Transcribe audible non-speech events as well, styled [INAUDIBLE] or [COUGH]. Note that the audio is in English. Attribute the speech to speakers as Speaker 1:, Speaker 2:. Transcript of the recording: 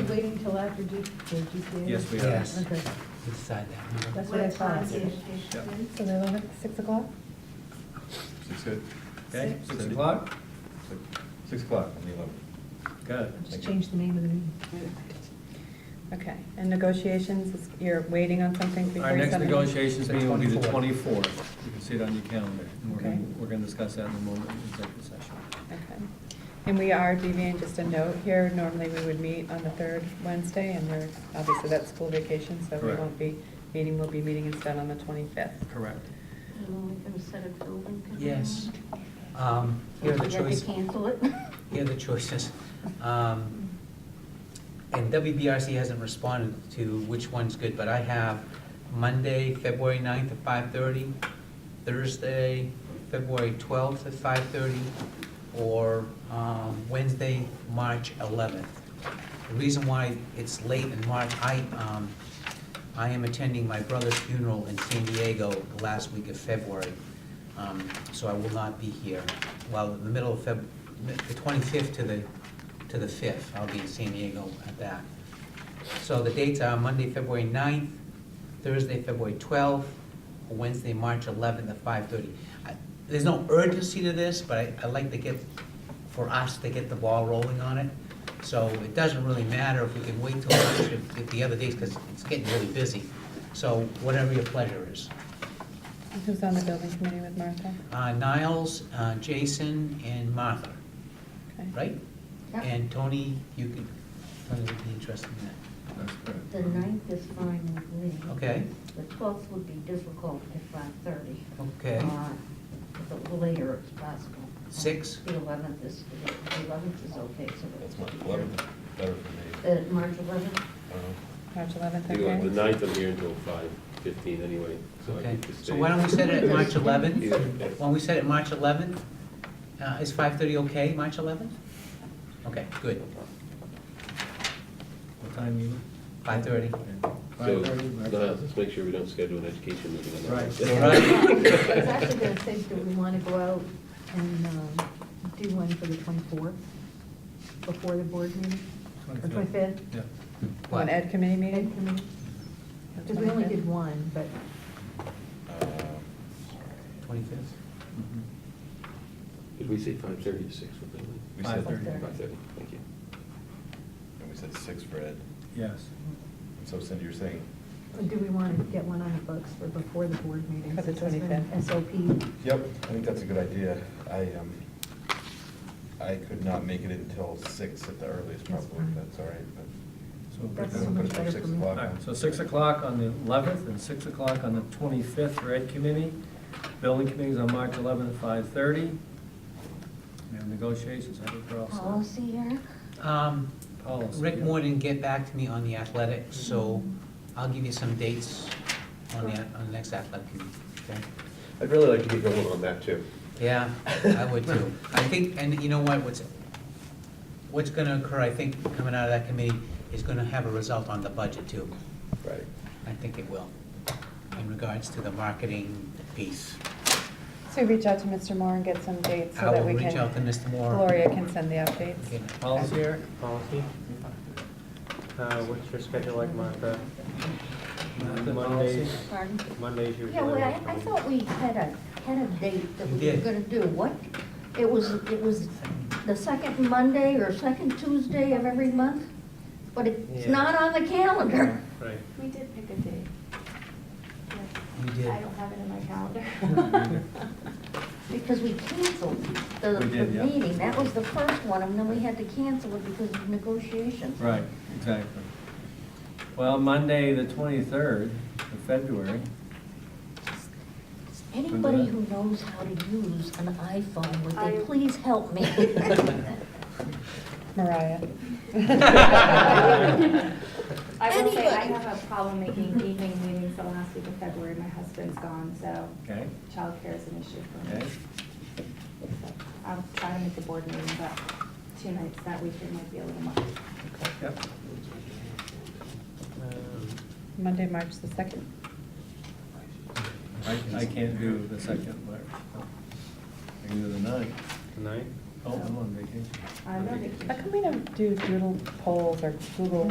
Speaker 1: applied for G, for GCA?
Speaker 2: Yes, we
Speaker 3: have.
Speaker 2: Yes.
Speaker 1: Okay,
Speaker 3: Decide that.
Speaker 1: that's what I
Speaker 4: What time
Speaker 1: thought.
Speaker 4: is
Speaker 1: So
Speaker 4: it?
Speaker 2: Yeah.
Speaker 1: they're on at six o'clock?
Speaker 5: Six good?
Speaker 2: Okay,
Speaker 5: Six.
Speaker 2: six o'clock?
Speaker 5: Six- Six o'clock on the eleventh.
Speaker 2: Got it.
Speaker 1: I'll Just
Speaker 5: Thank you.
Speaker 1: change the name of the meeting.
Speaker 6: Okay, and negotiations, is- you're waiting on something before
Speaker 2: Our
Speaker 6: you
Speaker 2: next
Speaker 6: send them?
Speaker 2: negotiations
Speaker 3: The
Speaker 2: meeting will be the
Speaker 3: 24th.
Speaker 2: twenty-fourth. You can see it on your calendar. And we're
Speaker 6: Okay.
Speaker 2: gonna, we're gonna discuss that in a moment in executive session.
Speaker 6: Okay. And we are deviating, just a note here, normally we would meet on the third Wednesday, and we're, obviously that's school vacation, so we
Speaker 2: Correct.
Speaker 6: won't be meeting, we'll be meeting instead on the twenty-fifth.
Speaker 2: Correct.
Speaker 4: And we can set a building. committee.
Speaker 3: Yes. Um, Here are the
Speaker 4: We had to
Speaker 3: choices.
Speaker 4: Cancel it.
Speaker 3: Here are the choices. Um, And WBRC hasn't responded to which one's good, but I have Monday, February 9th at 5:30, Thursday, February 12th at 5:30, or um, Wednesday, March 11th. The reason why it's late in March, I, um, I am attending my brother's funeral in San Diego the last week of February, um, so I will not be here. Well, in the middle of Feb, the 25th to the, to the 5th, I'll be in San Diego at that. So the dates are Monday, February 9th, Thursday, February 12th, or Wednesday, March 11th at 5:30. I- There's no urgency to this, but I- I like to get, for us to get the ball rolling on it. So it doesn't really matter if we can wait till March, if if the other days, because it's getting really busy. So whatever your pleasure is.
Speaker 6: Who's on the building committee with Martha?
Speaker 3: Uh, Niles, uh, Jason, and Martha,
Speaker 6: Okay.
Speaker 3: right?
Speaker 4: Yeah.
Speaker 3: And Tony, you can, Tony would be interested in that.
Speaker 5: That's correct.
Speaker 4: [LAUGHS] The ninth is fine with me.
Speaker 3: Okay.
Speaker 4: The twelfth would be difficult at five thirty.
Speaker 3: Okay.
Speaker 4: If it were later, it's possible.
Speaker 3: Six?
Speaker 4: The eleventh is, the eleventh is okay, so.
Speaker 5: That's March eleventh, better for me. Um,
Speaker 4: The March eleventh,
Speaker 5: I don't know.
Speaker 6: March eleventh,
Speaker 7: You know, The
Speaker 6: okay?
Speaker 7: ninth, I'm here until five fifteen anyway, so I
Speaker 3: Okay,
Speaker 7: think the
Speaker 3: so why don't we set it at March 11th?
Speaker 7: Yeah.
Speaker 3: Why don't we set it March 11th? Uh, Is 5:30 okay, March 11th? Okay, good,
Speaker 2: What time you?
Speaker 3: 5:30.
Speaker 7: So,
Speaker 2: Five thirty.
Speaker 7: no, let's make sure we don't schedule an education meeting on that. [LAUGHS]
Speaker 2: Right.
Speaker 7: Wednesday.
Speaker 4: I was actually gonna say, do we wanna go out and um, do one for the twenty-fourth, before the board meeting? Or twenty-fifth?
Speaker 2: Yeah.
Speaker 6: One ed committee meeting?
Speaker 4: Because we only did one, but,
Speaker 5: Uh,
Speaker 3: 25th?
Speaker 2: Mhm.
Speaker 7: Did we say five thirty to six? What did we-
Speaker 5: We said,
Speaker 2: 5:30.
Speaker 5: and
Speaker 7: Five thirty, thank you.
Speaker 5: we said six for Ed.
Speaker 2: Yes.
Speaker 5: So Cindy, you're saying,
Speaker 4: do we wanna get one on the books for before the board meeting?
Speaker 6: For the
Speaker 4: since it's been
Speaker 6: 25th.
Speaker 4: SOP,
Speaker 5: yep, I think that's a good idea. I, um, I could not make it until six at the earliest
Speaker 4: That's
Speaker 5: probably,
Speaker 4: fine.
Speaker 5: if that's all right, but.
Speaker 2: So we're
Speaker 4: That's
Speaker 2: gonna
Speaker 4: so
Speaker 2: put
Speaker 4: much
Speaker 2: it
Speaker 5: for
Speaker 4: better
Speaker 5: six
Speaker 4: for me.
Speaker 2: All
Speaker 5: o'clock.
Speaker 2: right, so six o'clock on the eleventh and six o'clock on the twenty-fifth for Ed Committee. Building Committee is on March eleventh at five-thirty. And negotiations, I think we're all set.
Speaker 4: policy, Eric?
Speaker 3: Um,
Speaker 2: Policy,
Speaker 3: Rick
Speaker 2: yeah.
Speaker 3: Moore didn't get back to me on the athletics, so I'll give you some dates on the, on the next athletic committee, okay?
Speaker 7: I'd really like to get going on that too.
Speaker 3: Yeah, I would too. [LAUGHS] I think, and you know what, what's, what's gonna occur, I think, coming out of that committee, is gonna have a result on the budget too.
Speaker 7: Right.
Speaker 3: I think it will, in regards to the marketing piece.
Speaker 6: So reach out to Mr. Moore and get some dates
Speaker 3: I
Speaker 6: so that
Speaker 3: will
Speaker 6: we
Speaker 3: reach out to
Speaker 6: can,
Speaker 3: Mr. Moore.
Speaker 6: Gloria can send the updates.
Speaker 3: Okay, Policy, Eric?
Speaker 8: Policy? Uh, what's your schedule like, Martha?
Speaker 2: Martha,
Speaker 8: Mondays,
Speaker 2: policy?
Speaker 4: Pardon?
Speaker 8: Mondays usually.
Speaker 4: Yeah, well, I,
Speaker 8: work for
Speaker 4: I
Speaker 8: me.
Speaker 4: thought we had a, had a date that
Speaker 3: We
Speaker 4: we were
Speaker 3: did.
Speaker 4: gonna do, what? It was, it was the second Monday or second Tuesday of every month, but it's
Speaker 8: Yeah.
Speaker 4: not on the calendar.
Speaker 8: Right.
Speaker 9: We did pick a date.
Speaker 3: You did.
Speaker 9: I don't have it in my calendar. [LAUGHS]
Speaker 4: Because we canceled the,
Speaker 2: We
Speaker 4: the
Speaker 2: did, yeah.
Speaker 4: meeting, that was the first one, and then we had to cancel it because of negotiations.
Speaker 2: Right, exactly. Well, Monday, the twenty-third of February,
Speaker 4: Anybody who knows how to use an iPhone, would they
Speaker 9: I-
Speaker 4: please help me? [LAUGHS]
Speaker 6: Mariah.
Speaker 9: [LAUGHS] I will say, I
Speaker 4: Anyway.
Speaker 9: have a problem making evening meetings the last week of February, my husband's gone, so
Speaker 2: okay,
Speaker 9: childcare is an issue for me.
Speaker 2: okay?
Speaker 9: So I'll try to make the board meeting, but two nights that weekend might be a little much.
Speaker 2: Yep.
Speaker 8: Um,
Speaker 6: Monday, March the second.
Speaker 2: I, I can't do the second March. I can do the ninth.
Speaker 8: Tonight?
Speaker 2: Oh, I'm on vacation.
Speaker 9: I'm on vacation.
Speaker 6: How come we don't do doodle polls or Google